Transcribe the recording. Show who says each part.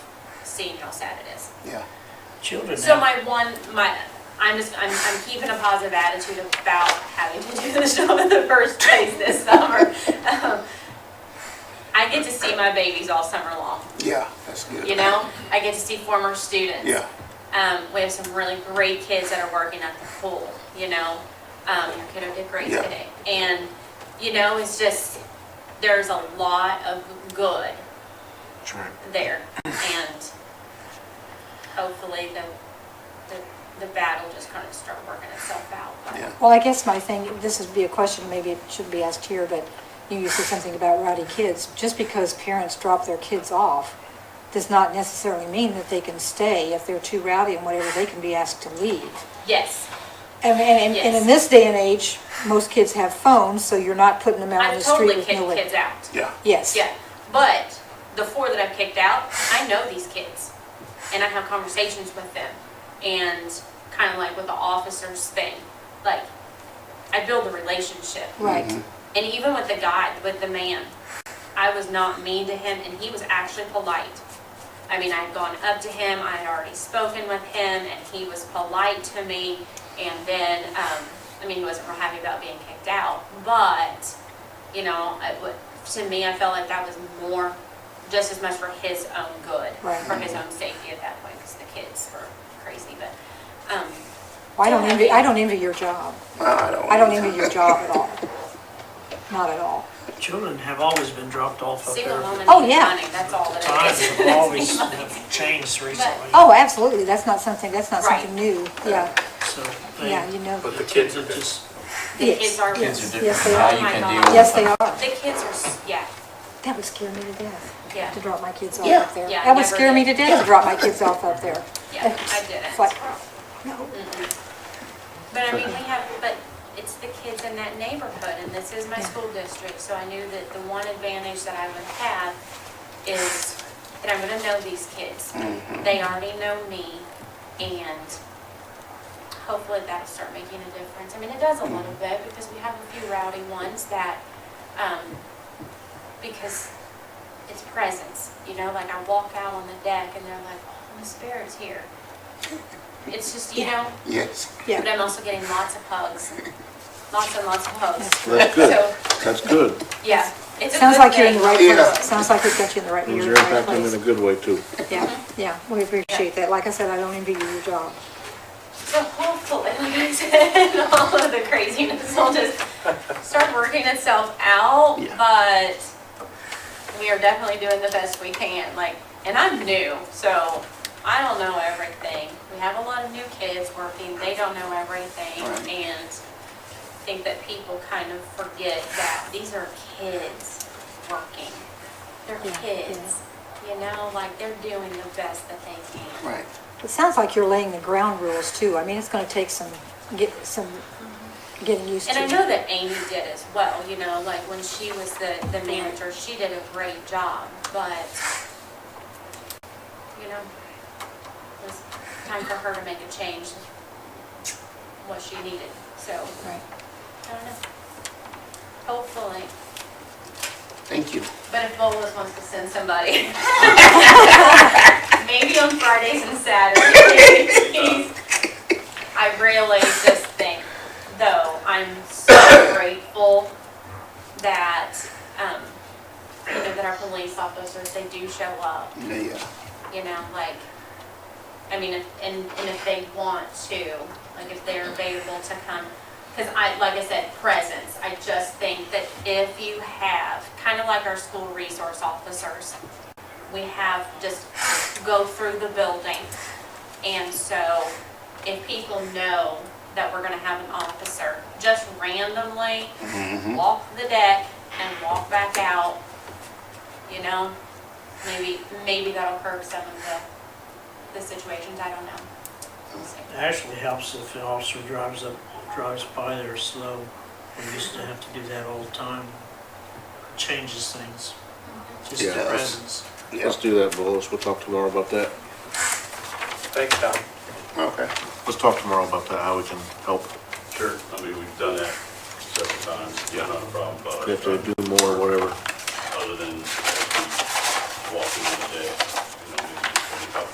Speaker 1: seeing how sad it is.
Speaker 2: yeah.
Speaker 3: Children
Speaker 1: So
Speaker 3: now,
Speaker 1: my one, my, I'm just, I'm, I'm keeping a positive attitude about having to do the show in the first place this summer. Um, I get to see my babies all summer long,
Speaker 2: Yeah, that's good.
Speaker 1: you know? I get to see former students.
Speaker 2: Yeah,
Speaker 1: Um, we have some really great kids that are working at the pool, you know? Um, your kiddo did great
Speaker 2: Yeah.
Speaker 1: today. And, you know, it's just, there's a lot of good
Speaker 2: that's right.
Speaker 1: there. And hopefully the, the, the battle just kind of start working itself out.
Speaker 2: Yeah.
Speaker 4: Well, I guess my thing, this would be a question, maybe it shouldn't be asked here, but you you said something about rowdy kids. Just because parents drop their kids off does not necessarily mean that they can stay if they're too rowdy and whatever, they can be asked to leave.
Speaker 1: Yes,
Speaker 4: And, and, and
Speaker 1: Yes.
Speaker 4: in this day and age, most kids have phones, so you're not putting them out on
Speaker 1: I've
Speaker 4: the street
Speaker 1: totally
Speaker 4: with no
Speaker 1: kicked kids
Speaker 4: label.
Speaker 1: out.
Speaker 2: Yeah,
Speaker 4: Yes.
Speaker 1: Yeah, but the four that I've kicked out, I know these kids, and I have conversations with them, and kind of like with the officers thing, like I build a relationship.
Speaker 4: Right,
Speaker 1: And even with the guy, with the man, I was not mean to him, and he was actually polite. I mean, I had gone up to him, I had already spoken with him, and he was polite to me. And then, um, I mean, he wasn't real happy about being kicked out, but, you know, it, wa- to me, I felt like that was more, just as much for his own good,
Speaker 4: Right.
Speaker 1: for his own safety at that point, because the kids were crazy. But, um,
Speaker 4: Well, I don't envy, I don't envy your job.
Speaker 2: I don't.
Speaker 4: I don't envy your job at all. Not at all.
Speaker 3: children have always been dropped off up
Speaker 1: single
Speaker 3: there.
Speaker 1: woman
Speaker 4: Oh,
Speaker 1: is
Speaker 4: yeah.
Speaker 1: running, that's all that it
Speaker 3: Times
Speaker 1: is.
Speaker 3: have always have changed recently.
Speaker 4: Oh, absolutely, that's not something, that's not
Speaker 1: Right.
Speaker 4: something new, yeah,
Speaker 3: So they-
Speaker 4: yeah, you know.
Speaker 5: But the
Speaker 3: kids
Speaker 5: kids
Speaker 3: are
Speaker 5: are
Speaker 3: just,
Speaker 1: The
Speaker 4: Yes,
Speaker 1: kids are-
Speaker 4: yes,
Speaker 6: Kids are
Speaker 4: Yes, they
Speaker 6: different now,
Speaker 4: are.
Speaker 6: you
Speaker 1: Oh my
Speaker 6: can
Speaker 1: God.
Speaker 6: deal with.
Speaker 4: Yes, they are.
Speaker 1: The kids are, s- yeah,
Speaker 4: That would scare me to death,
Speaker 1: yeah,
Speaker 4: to drop my kids off
Speaker 2: Yeah.
Speaker 4: up there.
Speaker 1: Yeah,
Speaker 4: That would
Speaker 1: never
Speaker 4: scare me to
Speaker 1: did.
Speaker 4: death to drop my kids off up there.
Speaker 1: yeah, I did
Speaker 4: It's
Speaker 1: it.
Speaker 4: like, no.
Speaker 1: But I mean, we have, but it's the kids in that neighborhood, and this is my school district, so I knew that the one advantage that I would have is that I'm gonna know these kids. They already know me, and hopefully that'll start making a difference. I mean, it does a little bit, because we have a few rowdy ones that, um, because it's presence, you know, like I walk out on the deck and they're like, oh, Miss Barrett's here. It's just, you know,
Speaker 2: Yes,
Speaker 1: but
Speaker 4: Yeah,
Speaker 1: I'm also getting lots of hugs, lots and lots of hugs.
Speaker 7: That's good,
Speaker 1: So,
Speaker 7: that's good.
Speaker 1: yeah, it's a
Speaker 4: sounds
Speaker 1: good
Speaker 4: like you're in the
Speaker 1: thing.
Speaker 4: right
Speaker 2: Yeah.
Speaker 4: place, sounds like we've got you in the right,
Speaker 7: Those
Speaker 4: you're
Speaker 7: are
Speaker 4: in the right
Speaker 7: impacting in a
Speaker 4: place.
Speaker 7: good way too.
Speaker 4: Yeah, yeah, we appreciate that, like I said, I don't envy you your job.
Speaker 1: So hopefully, like I said, all of the craziness will just start working itself out,
Speaker 7: Yeah.
Speaker 1: but we are definitely doing the best we can, like, and I'm new, so I don't know everything. We have a lot of new kids working, they don't know everything,
Speaker 2: Right.
Speaker 1: and I think that people kind of forget that these are kids working. They're
Speaker 4: Yeah,
Speaker 1: kids, you know, like, they're doing the best that they can.
Speaker 2: right.
Speaker 4: It sounds like you're laying the ground rules too, I mean, it's gonna take some, get, some getting used to.
Speaker 1: And I know that Amy did as well, you know, like when she was the, the manager, she did a great job, but, you know, it was time for her to make a change, what she needed, so,
Speaker 4: Right.
Speaker 1: I don't know. Hopefully,
Speaker 2: Thank you.
Speaker 1: but if Bola's wants to send somebody, maybe on Fridays and Saturdays, I really just think, though, I'm so grateful that, um, you know, that our police officers, they do show up,
Speaker 2: Yeah, yeah.
Speaker 1: you know, like, I mean, if- and, and if they want to, like, if they're available to come, because I, like I said, presence, I just think that if you have, kind of like our school resource officers, we have just go through the building. And so if people know that we're gonna have an officer, just randomly
Speaker 2: Mm-hmm.
Speaker 1: walk the deck and walk back out, you know? Maybe, maybe that'll curb some of the, the situations, I don't know. We'll see.
Speaker 3: it actually helps if an officer drives up, drives by there slow. We used to have to do that all the time. Changes things, just
Speaker 7: Yeah.
Speaker 3: the presence.
Speaker 2: Yeah,
Speaker 7: Let's do that, Willis, we'll talk tomorrow about that.
Speaker 5: Thanks, Tom.
Speaker 7: Oh.
Speaker 2: okay.
Speaker 7: Let's talk tomorrow about that, how we can help,
Speaker 5: Sure, I mean, we've done that several times, yeah, not a problem, but uh,
Speaker 7: if they do more, whatever.
Speaker 5: other than uh, walking on the deck.